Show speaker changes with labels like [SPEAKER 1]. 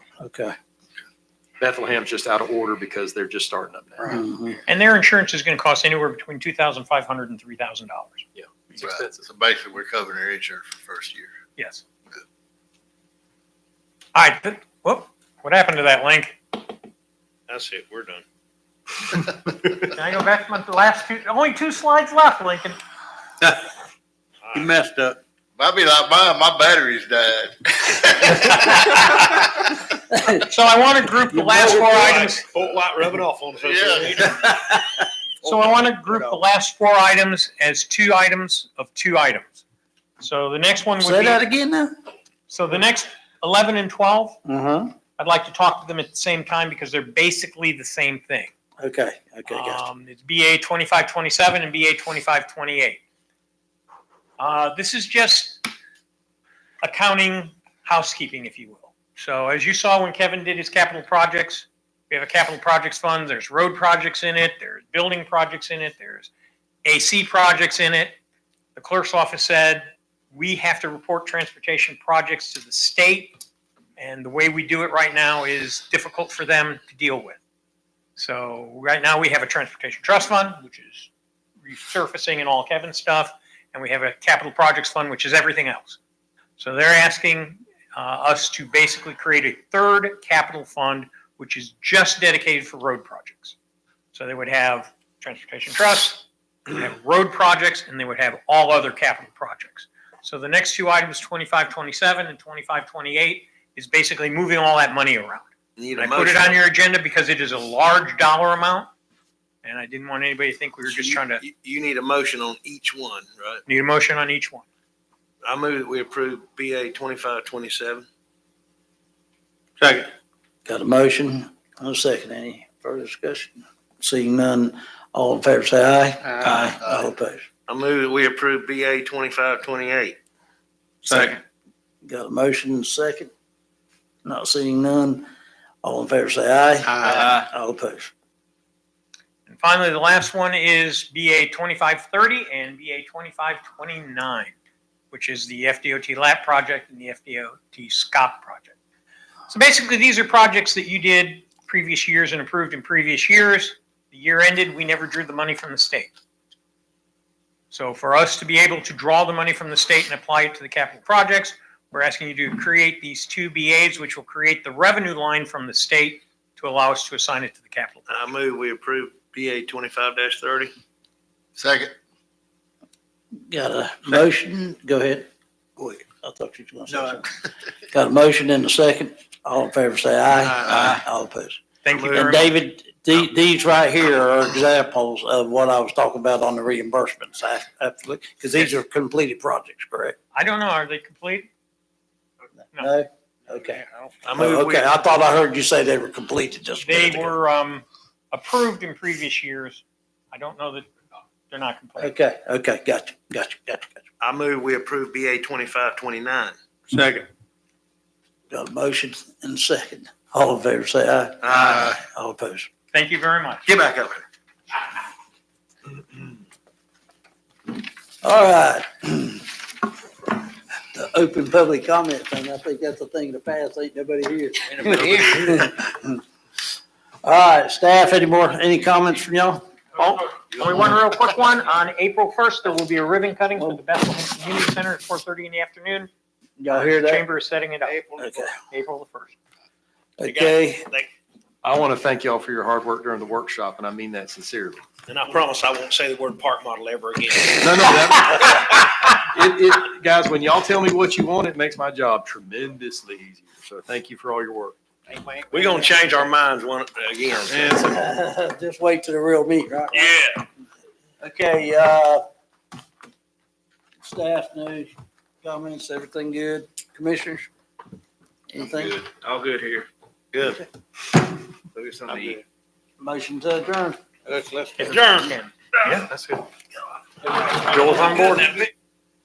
[SPEAKER 1] Okay.
[SPEAKER 2] Bethlehem's just out of order because they're just starting up now.
[SPEAKER 1] Mhm.
[SPEAKER 3] And their insurance is going to cost anywhere between two thousand five hundred and three thousand dollars.
[SPEAKER 2] It's
[SPEAKER 4] Right.
[SPEAKER 2] expensive.
[SPEAKER 4] So basically, we're covering their insurance for the first year.
[SPEAKER 3] Yes. All right. but- Whoop. What happened to that link?
[SPEAKER 5] That's it. We're done.
[SPEAKER 3] Can I go back to the last two? Only two slides left, Lincoln.
[SPEAKER 1] You messed up.
[SPEAKER 4] I'd be like, my, my battery's died.
[SPEAKER 3] So I want to group the last four items.
[SPEAKER 5] Fort White rubbing off on us.
[SPEAKER 4] Yeah.
[SPEAKER 3] So I want to group the last four items as two items of two items. So the next one would
[SPEAKER 1] Say that
[SPEAKER 3] be,
[SPEAKER 1] again now?
[SPEAKER 3] so the next eleven and twelve,
[SPEAKER 1] Uh-huh.
[SPEAKER 3] I'd like to talk to them at the same time because they're basically the same thing.
[SPEAKER 1] Okay, okay, gotcha.
[SPEAKER 3] Um, it's BA twenty-five twenty-seven and BA twenty-five twenty-eight. Uh, this is just accounting, housekeeping, if you will. So as you saw when Kevin did his capital projects, we have a capital projects fund, there's road projects in it, there's building projects in it, there's AC projects in it. The clerk's office said, we have to report transportation projects to the state, and the way we do it right now is difficult for them to deal with. So right now, we have a transportation trust fund, which is resurfacing and all Kevin's stuff, and we have a capital projects fund, which is everything else. So they're asking uh, us to basically create a third capital fund, which is just dedicated for road projects. So they would have transportation trust, they would have road projects, and they would have all other capital projects. So the next two items, 2527 and 2528, is basically moving all that money around.
[SPEAKER 6] Need
[SPEAKER 3] I
[SPEAKER 6] a
[SPEAKER 3] put it
[SPEAKER 6] motion.
[SPEAKER 3] on your agenda because it is a large dollar amount, and I didn't want anybody to think we were just
[SPEAKER 6] You-
[SPEAKER 3] trying to
[SPEAKER 6] You, you need a motion on each one, right?
[SPEAKER 3] need a motion on each one.
[SPEAKER 6] I move that we approve BA twenty-five twenty-seven.
[SPEAKER 1] Got a motion, and a second. Any further discussion? Seeing none, all in favor say aye.
[SPEAKER 4] Aye.
[SPEAKER 1] All opposed.
[SPEAKER 6] I move that we approve BA twenty-five twenty-eight.
[SPEAKER 4] Second.
[SPEAKER 1] Got a motion, and a second. Not seeing none, all in favor say aye.
[SPEAKER 4] Aye.
[SPEAKER 1] All opposed.
[SPEAKER 3] And finally, the last one is BA 2530 and BA 2529, which is the FDOT LAP project and the FDOT SCOP project. So basically, these are projects that you did previous years and approved in previous years. The year ended, we never drew the money from the state. So for us to be able to draw the money from the state and apply it to the capital projects, we're asking you to create these two BAs, which will create the revenue line from the state to allow us to assign it to the capital.
[SPEAKER 6] I move we approve BA twenty-five thirty.
[SPEAKER 4] Second.
[SPEAKER 1] Got a motion, go ahead. Go ahead. I thought you were gonna say something. Got a motion and a second, all in favor say aye.
[SPEAKER 4] Aye.
[SPEAKER 1] All opposed.
[SPEAKER 3] Thank you very
[SPEAKER 1] And
[SPEAKER 3] much.
[SPEAKER 1] David, the- these right here are examples of what I was talking about on the reimbursement side, absolutely, because these are completed projects, correct?
[SPEAKER 3] I don't know. Are they complete? No.
[SPEAKER 1] No? Okay. Oh,
[SPEAKER 6] I move we,
[SPEAKER 1] Okay, I thought I heard you say they were completed just. a
[SPEAKER 3] They
[SPEAKER 1] minute ago.
[SPEAKER 3] were um, approved in previous years. I don't know that they're not complete.
[SPEAKER 1] Okay, okay, gotcha, gotcha, gotcha, gotcha.
[SPEAKER 6] I move we approve BA twenty-five twenty-nine.
[SPEAKER 4] Second.
[SPEAKER 1] Got a motion and a second, all in favor say aye.
[SPEAKER 4] Aye.
[SPEAKER 1] All opposed.
[SPEAKER 3] Thank you very much.
[SPEAKER 6] Get back up here.
[SPEAKER 1] All right. The open public comment thing, I think that's the thing to pass, ain't nobody here. All right, staff, any more, any comments from y'all?
[SPEAKER 3] Oh, only one real quick one. On April 1st, there will be a ribbon cutting for the Bethlehem Community Center at 4:30 in the afternoon.
[SPEAKER 1] Y'all hear
[SPEAKER 3] The
[SPEAKER 1] that?
[SPEAKER 3] Chamber is setting it up.
[SPEAKER 1] Okay,
[SPEAKER 3] April the 1st.
[SPEAKER 1] okay,
[SPEAKER 2] I want to thank y'all for your hard work during the workshop, and I mean that sincerely.
[SPEAKER 5] And I promise I won't say the word park model ever again.
[SPEAKER 2] No, no, that, it, it, guys, when y'all tell me what you want, it makes my job tremendously easier. So thank you for all your work.
[SPEAKER 6] We are gonna change our minds one, again.
[SPEAKER 1] just wait to the real meat, right?
[SPEAKER 5] Yeah.
[SPEAKER 1] Okay, uh, staff news, comments, everything good? Commissioners? Anything?
[SPEAKER 6] All good here. Good.
[SPEAKER 1] Motion to adjourn.
[SPEAKER 4] Let's, let's.
[SPEAKER 5] Adjourn.
[SPEAKER 2] Yeah, that's good.
[SPEAKER 5] Joel's on board.